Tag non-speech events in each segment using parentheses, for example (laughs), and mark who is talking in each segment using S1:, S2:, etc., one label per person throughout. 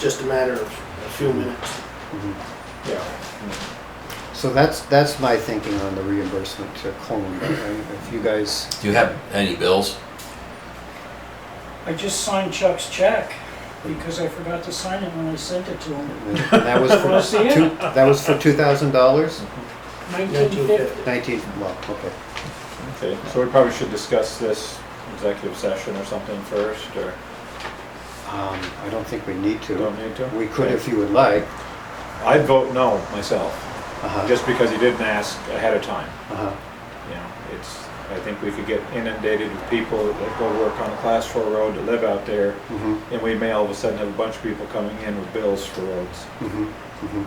S1: just a matter of a few minutes. Yeah.
S2: Mm-hmm. So that's, that's my thinking on the reimbursement to Columbia. And If you guys,
S3: Do you have any bills?
S4: I just signed Chuck's check because I forgot to sign it when I sent it to him.
S2: and that was
S5: (laughs)
S4: Wanna
S2: for
S4: see
S2: two, that was for two thousand dollars?
S4: Nineteen fifty.
S1: 1950.
S2: Nineteen, well, okay.
S5: Okay, so we probably should discuss this executive session or something first, or
S2: Um, I don't think we need to.
S5: don't need to?
S2: We could if you would like.
S5: I'd vote no myself,
S2: Uh-huh,
S5: just because he didn't ask ahead of time.
S2: uh-huh.
S5: You know, it's, I think we could get inundated with people that go work on a class four road that live out there,
S2: Mhm,
S5: and we may all of a sudden have a bunch of people coming in with bills for roads.
S2: mhm, mhm.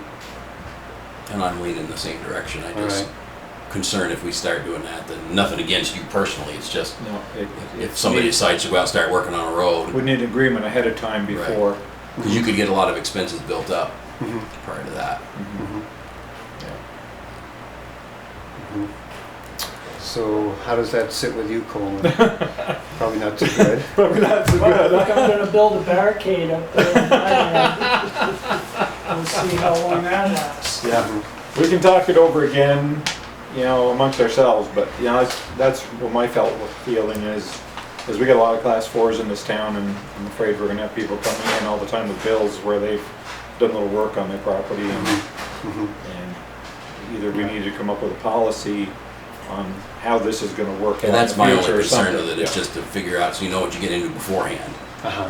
S3: And I'm leaning the same direction. I
S2: All
S3: just
S2: right.
S3: concerned if we start doing that, then nothing against you personally. It's just
S5: No, it. it-
S3: if somebody decides to go out and start working on a
S5: We
S3: road,
S5: need agreement ahead of time
S3: Right.
S5: before.
S3: 'cause you could get a lot of expenses built up
S2: Mhm,
S3: prior to that.
S5: Mhm.
S3: Mm-hmm.
S2: mhm,
S5: Yeah. (laughs)
S2: mhm. So how does that sit with you,
S5: (laughs)
S2: Coleman? Probably not too good.
S4: Well, look, I'm gonna build a barricade up there. on my end. We'll see how long that lasts.
S5: Yeah.
S2: mm-hmm,
S5: We can talk it over again, you know, amongst ourselves, but, you know, that's, that's what my felt feeling is, is we got a lot of class fours in this town, and I'm afraid we're gonna have people coming in all the time with bills where they've done little work on their property, and,
S2: Mhm.
S5: and either we need to come up with a policy on how this is gonna work out in
S3: And
S5: the
S3: that's my only
S5: future or
S3: concern
S5: something.
S3: with it, is just to figure out so you know what you get into beforehand.
S2: Uh-huh,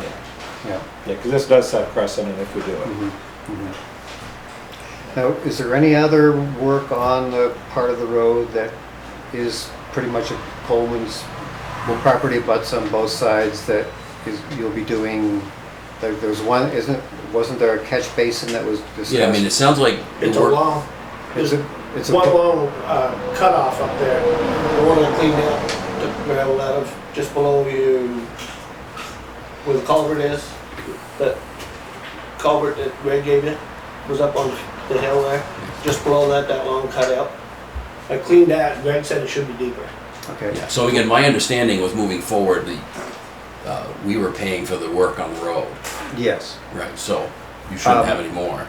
S2: yeah.
S5: Yeah, because this does set precedent if we do it.
S2: Mhm, mhm. Now, is there any other work on the part of the road that is pretty much a Coleman's, well, property butts on both sides that is, you'll be doing? There, there's one, isn't, wasn't there a catch basin that was discussed?
S3: Yeah, I mean, it sounds like the
S1: It's a
S3: work-
S1: long,
S2: It's a, it's
S1: it's
S2: a,
S1: one long uh, cutoff up there. The one I cleaned out, took gravel out of, just below you, where the culvert is, that culvert that Greg gave you, was up on the hill there, just below that, that long cutout. I cleaned that, Greg said it should be deeper.
S2: okay,
S3: Yeah, so again, my understanding was moving forward, the, uh, we were paying for the work on the road,
S2: yes.
S3: right? So you shouldn't
S2: Um,
S3: have any more.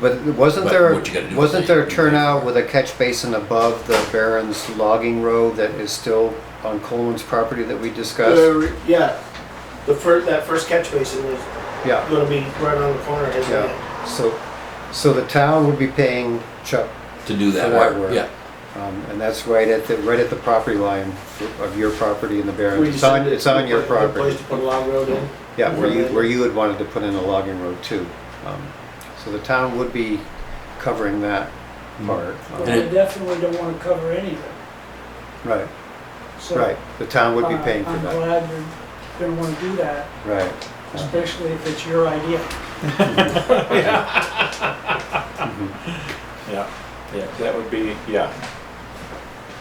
S2: But wasn't
S3: But
S2: there,
S3: what you gotta do is
S2: wasn't
S3: they-
S2: there a turnout with a catch basin above the Barron's logging road that is still on Coleman's property that we discussed?
S1: There- Yeah, the first, that first catch basin was
S2: Yeah.
S1: gonna be right on the corner, isn't it?
S2: Yeah, so, so the town would be paying Chuck,
S3: To do
S2: For
S3: that
S2: that
S3: work,
S2: work.
S3: yeah.
S2: um, and that's right at the, right at the property line of your property and the
S1: We
S2: Barrens. It's on,
S1: decided
S2: it's on your
S1: to put a
S2: property.
S1: Place to put a log road in.
S2: Yeah, where you, where you had wanted to put in a logging road too. Um, So the town would be covering that part. Um,
S4: But I definitely don't wanna cover anything.
S2: Right,
S4: So,
S2: right. The town would be
S4: uh,
S2: paying for
S4: I'm
S2: that,
S4: glad you're gonna wanna do that,
S2: right.
S4: especially if it's your idea.
S5: Yeah, yeah, that would be, yeah.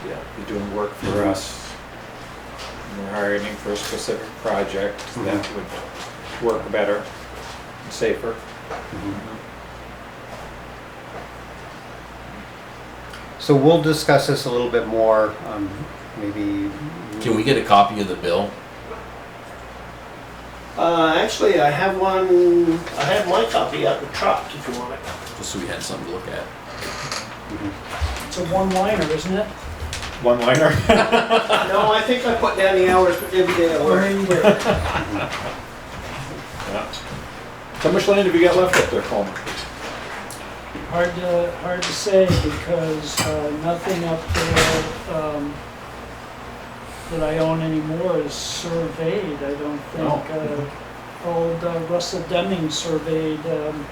S5: Yeah, you're doing work for
S2: Mhm.
S5: us. and We're hiring you for a specific project that would work better, and safer.
S2: Mm-hmm. So we'll discuss this a little bit more, um, maybe.
S3: Can we get a copy of the bill?
S1: Uh, actually, I have one, I have my copy out the truck if you want it.
S3: Just so we had something to look at.
S4: It's a one-liner, isn't it?
S5: One liner?
S1: No, I think I put down the hours for every day at
S4: Or
S1: work.
S4: anywhere.
S5: Yeah. How much land have you got left up there, Coleman?
S4: Hard to, hard to say because uh, nothing up there um, that I own anymore is surveyed, I don't think.
S5: No.
S4: Uh, Old uh, Russell Deming surveyed, um,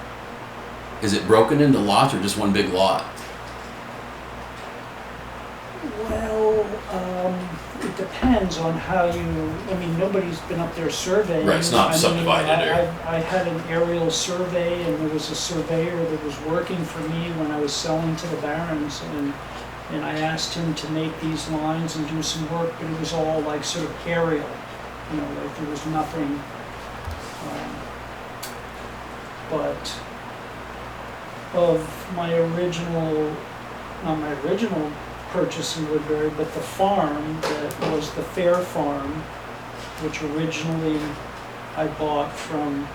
S3: Is it broken into lots or just one big lot?
S4: well, um, it depends on how you, I mean, nobody's been up there surveying.
S3: Right, it's not
S4: I mean,
S3: subdivided
S4: I-
S3: or-
S4: I I had an aerial survey and there was a surveyor that was working for me when I was selling to the barons and and I asked him to make these lines and do some work, but it was all like sort of aerial, you know, like there was nothing. um, But of my original, not my original purchase in Woodbury, but the farm that was the Fair Farm, which originally I bought from